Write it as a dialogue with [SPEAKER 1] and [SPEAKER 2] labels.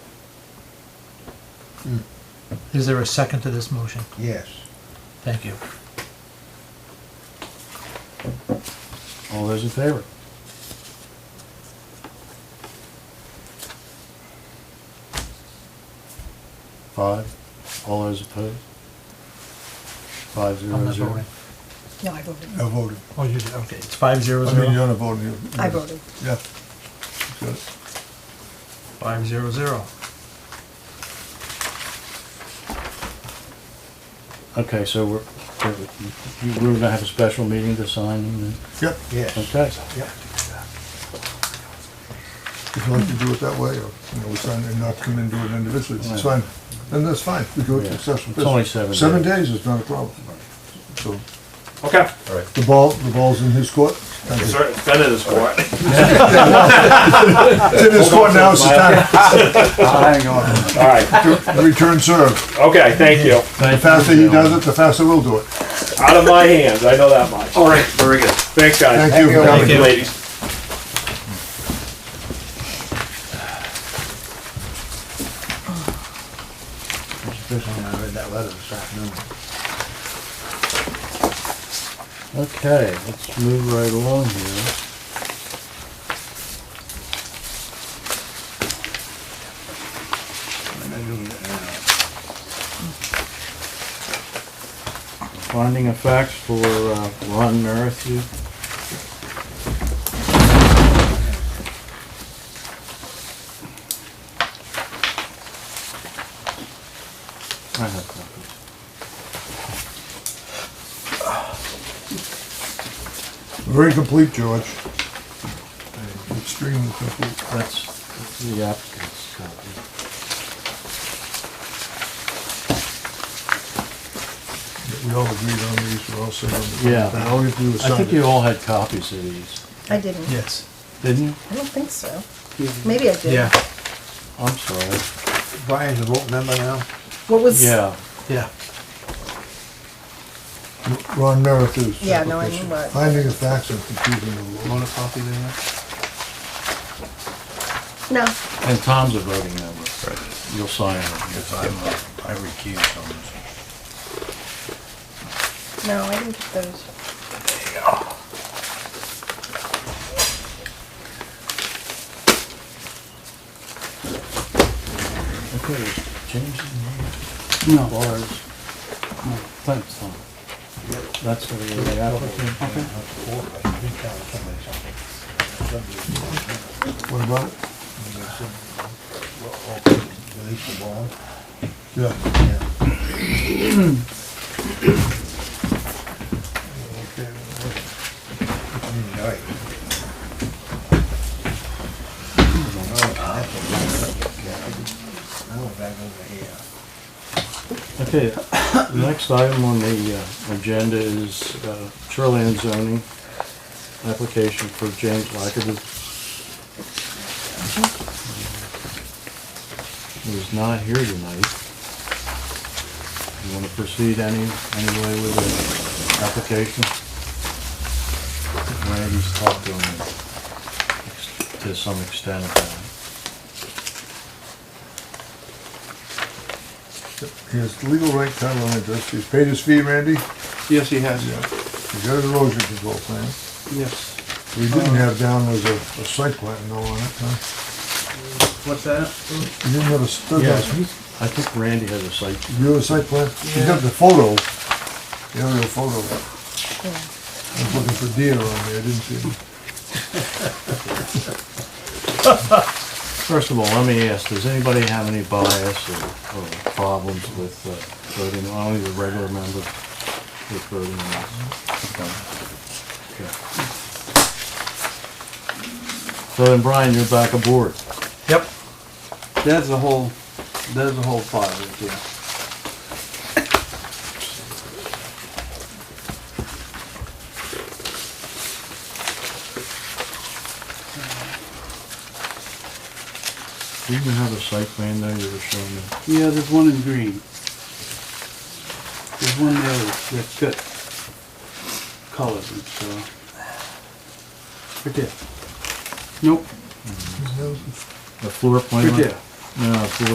[SPEAKER 1] Is there a second to this motion?
[SPEAKER 2] Yes.
[SPEAKER 1] Thank you.
[SPEAKER 2] All those in favor? Five. All those opposed? Five
[SPEAKER 1] I'm
[SPEAKER 2] zero
[SPEAKER 1] not
[SPEAKER 2] zero.
[SPEAKER 1] voting.
[SPEAKER 3] No, I voted.
[SPEAKER 4] I voted.
[SPEAKER 1] Oh, you did, okay, it's five zero
[SPEAKER 4] I mean,
[SPEAKER 1] zero,
[SPEAKER 4] you're not voting. you-
[SPEAKER 3] I voted.
[SPEAKER 4] Yeah. Got it.
[SPEAKER 1] five zero zero.
[SPEAKER 2] Okay, so we're, you- we're gonna have a special meeting to sign and,
[SPEAKER 4] Yep.
[SPEAKER 2] okay.
[SPEAKER 5] Yes,
[SPEAKER 4] Yep.
[SPEAKER 5] If you like to do it that way, or, you know, we sign and not come in and do it individually,
[SPEAKER 2] Right.
[SPEAKER 5] it's fine. Then that's fine, we do it
[SPEAKER 2] Yeah.
[SPEAKER 5] successful.
[SPEAKER 2] It's only seven
[SPEAKER 5] Seven
[SPEAKER 2] days.
[SPEAKER 5] days is not a problem. So
[SPEAKER 6] Okay.
[SPEAKER 7] All right.
[SPEAKER 5] the ball, the ball's in his court. Thank you.
[SPEAKER 6] Sir, it's been in this court.
[SPEAKER 5] It's in his court now, it's the time
[SPEAKER 2] Hang on.
[SPEAKER 6] All right.
[SPEAKER 5] to return serve.
[SPEAKER 6] Okay, thank you.
[SPEAKER 5] The faster he does it, the faster we'll do it.
[SPEAKER 6] Out of my hands, I know that much.
[SPEAKER 7] All right, very good.
[SPEAKER 6] Thanks, guys.
[SPEAKER 5] Thank you for
[SPEAKER 6] Thank
[SPEAKER 5] coming.
[SPEAKER 6] you, ladies.
[SPEAKER 2] Especially when I read that letter this afternoon. Okay, let's move right along here. Finding of facts for uh, Ron Merrithew. I have copies.
[SPEAKER 5] Very complete, George. Extremely complete.
[SPEAKER 2] That's the applicant's copy.
[SPEAKER 5] We all agreed on these, we're all set on these.
[SPEAKER 2] Yeah.
[SPEAKER 5] All we have to do is
[SPEAKER 2] I
[SPEAKER 5] sign
[SPEAKER 2] think you
[SPEAKER 5] it.
[SPEAKER 2] all had copies of these,
[SPEAKER 3] I didn't.
[SPEAKER 1] Yes,
[SPEAKER 2] didn't you?
[SPEAKER 3] I don't think so. Maybe I did.
[SPEAKER 1] yeah,
[SPEAKER 2] I'm sorry.
[SPEAKER 4] Brian's a vote member now.
[SPEAKER 3] What was?
[SPEAKER 2] Yeah,
[SPEAKER 1] yeah.
[SPEAKER 5] Ron Merrithew's.
[SPEAKER 3] Yeah, no, I knew
[SPEAKER 5] application.
[SPEAKER 3] what-
[SPEAKER 5] Finding of facts and confusing the law.
[SPEAKER 4] Want a copy there?
[SPEAKER 3] No.
[SPEAKER 2] and Tom's a voting member. You'll sign it.
[SPEAKER 7] If I'm, uh, I recuse on this.
[SPEAKER 3] No, I didn't get those.
[SPEAKER 2] Okay, change the name. No. Bars. No, thanks, Tom. That's the the applicant.
[SPEAKER 5] What about it?
[SPEAKER 4] Release the bond.
[SPEAKER 5] Yeah.
[SPEAKER 2] Okay, the next item on the uh, agenda is uh, shoreline zoning, application for James Lackady. Who's not here tonight. You want to proceed any, any way with the application? Randy's talked to him to some extent about it.
[SPEAKER 5] He has legal right title and address. He's paid his fee, Randy.
[SPEAKER 4] Yes, he has.
[SPEAKER 5] He's got an erosion control plan.
[SPEAKER 4] Yes. Uh,
[SPEAKER 5] We didn't have down was a, a site plan though on it, huh?
[SPEAKER 4] What's that?
[SPEAKER 5] You didn't have a, stood
[SPEAKER 2] Yeah,
[SPEAKER 5] down.
[SPEAKER 2] I think Randy has a site.
[SPEAKER 5] you have a site plan? You got the photo, the aerial photo. I was looking for deer on there, I didn't see it.
[SPEAKER 2] First of all, let me ask, does anybody have any bias or, or problems with uh, voting, only the regular members with voting rights? Okay. So then Brian, you're back aboard.
[SPEAKER 1] Yep,
[SPEAKER 4] That's the whole, that's the whole file right there.
[SPEAKER 2] Didn't you have a site plan there you were showing me?
[SPEAKER 4] Yeah, there's one in green. There's one there that's that's got colors and stuff. Right there. Nope,
[SPEAKER 2] The floor plan?
[SPEAKER 4] right there.
[SPEAKER 2] No, floor